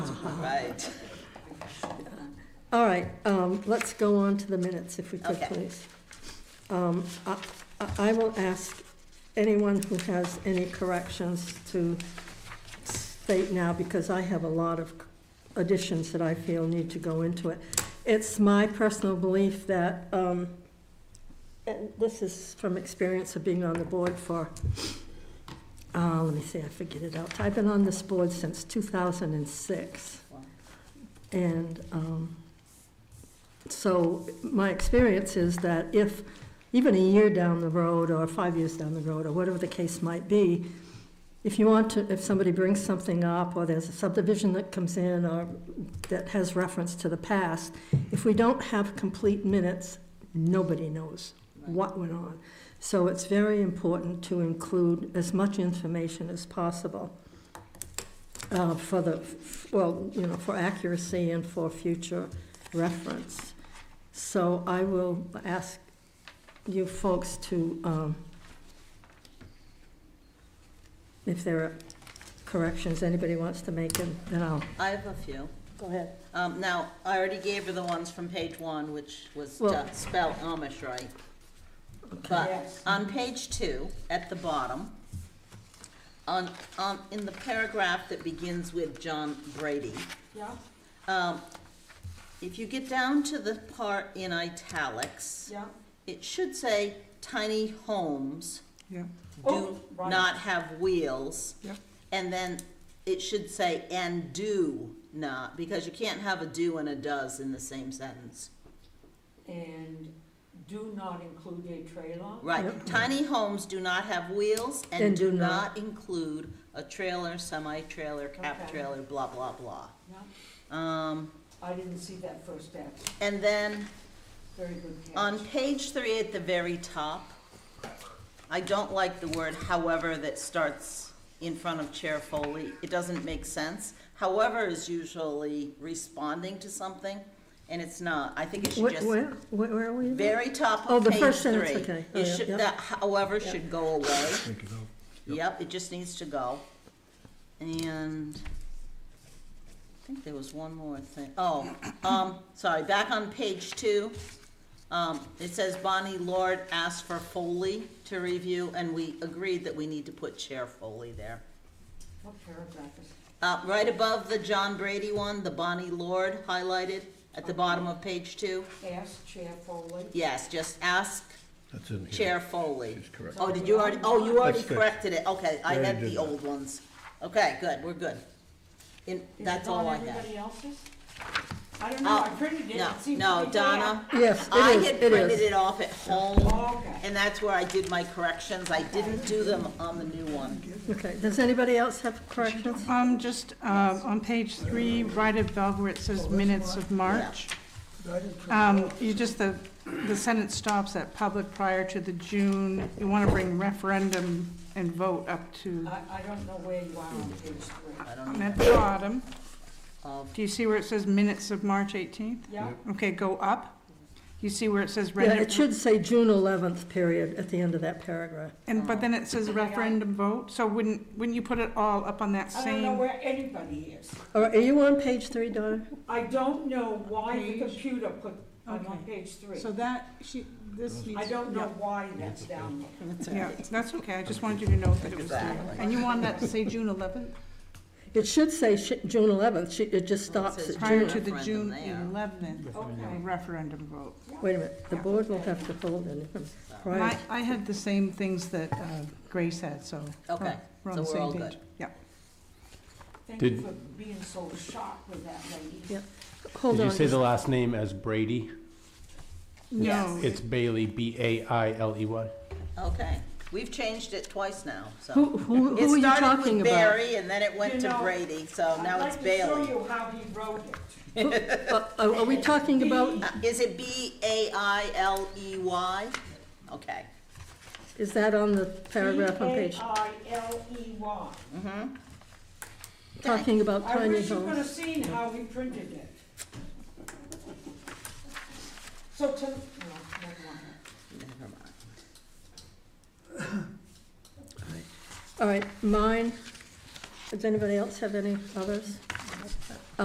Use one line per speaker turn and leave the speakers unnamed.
right.
All right, um, let's go on to the minutes if we could,
Okay.
please. Um, I, I- I will ask anyone who has any corrections to state now, because I have a lot of additions that I feel need to go into it. It's my personal belief that, um, and this is from experience of being on the board for, uh, let me see, I figured it out. I've been on this board since two thousand and six. And um, so my experience is that if, even a year down the road, or five years down the road, or whatever the case might be, if you want to, if somebody brings something up, or there's a subdivision that comes in, or that has reference to the past, if we don't have complete minutes, nobody knows what went on. So it's very important to include as much information as possible uh, for the, well, you know, for accuracy and for future reference. So I will ask you folks to, um, if there are corrections anybody wants to make, and then I'll,
I have a few.
go ahead.
Um, now, I already gave her the ones from page one, which was
Well-
to spell Amish right. But on page two, at the bottom, on, on, in the paragraph that begins with John Brady.
Yeah,
Um, If you get down to the part in italics,
yeah.
it should say tiny homes
Yeah,
Oh,
do
right.
not have wheels.
Yep.
And then it should say and do not, because you can't have a do and a does in the same sentence.
And do not include a trailer.
Right,
Yep.
tiny homes do not have wheels and
And
do
do not.
not include a trailer, semi-trailer, cap
Okay.
trailer, blah, blah, blah.
Yeah,
Um,
I didn't see that first act.
and then
Very good catch.
on page three at the very top, I don't like the word however that starts in front of Chair Foley. It doesn't make sense. However is usually responding to something, and it's not. I think it should
Where,
just,
where, where are we?
very top
Oh,
of
the
page three.
first sentence, okay. Oh,
It
yeah,
should,
yeah.
that however should go away.
Take it out.
Yep, it just needs to go. And I think there was one more thing. Oh, um, sorry, back on page two. Um, it says Bonnie Lord asked for Foley to review, and we agreed that we need to put Chair Foley there.
What paragraph is?
Uh, right above the John Brady one, the Bonnie Lord highlighted at the bottom of page two.
Ask Chair Foley.
Yes, just ask
That's in here.
Chair Foley.
She's correct.
Oh, did you already, oh, you already
That's fixed.
corrected it, okay, I
Already
had
did
the
that.
old ones. Okay, good, we're good. In,
Is
that's
it
all I
on
have.
everybody else's? I don't know, I
Oh,
printed it,
No,
it seems
no,
to be there.
Donna,
Yes,
I
it is,
had
it
printed
is.
it off at home,
Okay.
and that's where I did my corrections, I didn't do them on the new one.
Okay, does anybody else have corrections?
Um, just, um, on page three, right above where it says minutes of March, um, you just, the, the sentence stops at public prior to the June, you wanna bring referendum and vote up to,
I, I don't know where you are on page three.
I don't
um,
know
at the bottom.
of,
Do you see where it says minutes of March eighteenth?
Yeah,
Okay, go up. You see where it says
Yeah, it
referendum,
should say June eleventh period at the end of that paragraph.
and, but then it says referendum vote, so wouldn't, wouldn't you put it all up on that
I don't know
same?
where anybody is.
All right, are you on page three, Donna?
I don't know why the
Page?
computer put, I'm on
Okay.
page three.
So that, she, this needs.
I don't
yeah.
know why that's down there.
that's all
Yeah,
right.
that's okay, I just wanted you to know that it was there.
Exactly.
And you wanted that to say June eleventh,
It should say sh- June eleventh, it just stops
says
at
prior
June.
to the
Referendum
June
there.
eleventh uh,
Okay.
referendum vote.
Wait a minute, the
Yeah.
board will have to hold anything
And
prior.
I, I had the same things that uh, Grace had, so. we're-
Okay,
we're on
so
the
we're
same
all
page.
good.
Yeah,
Thank you
Did-
for being so sharp with that lady.
Yeah. Hold
Did
on,
you say
just-
the last name as Brady?
no,
It's Bailey, B A I L E Y.
Okay, we've changed it twice now, so.
who, who,
It
who are you
started with
talking about?
Barry, and then it went
You
to
know,
Brady, so now it's
I'd like to
Bailey.
show you how he wrote it.
Uh, Are are we talking about,
Uh, Is it B A I L E Y? Okay.
is that on the paragraph on page,
B-A-I-L-E-Y.
talking about
I
tiny
wish you could
homes?
have seen how we printed it. So to, no, never mind.
Never mind.
All right, mine, does anybody else have any others?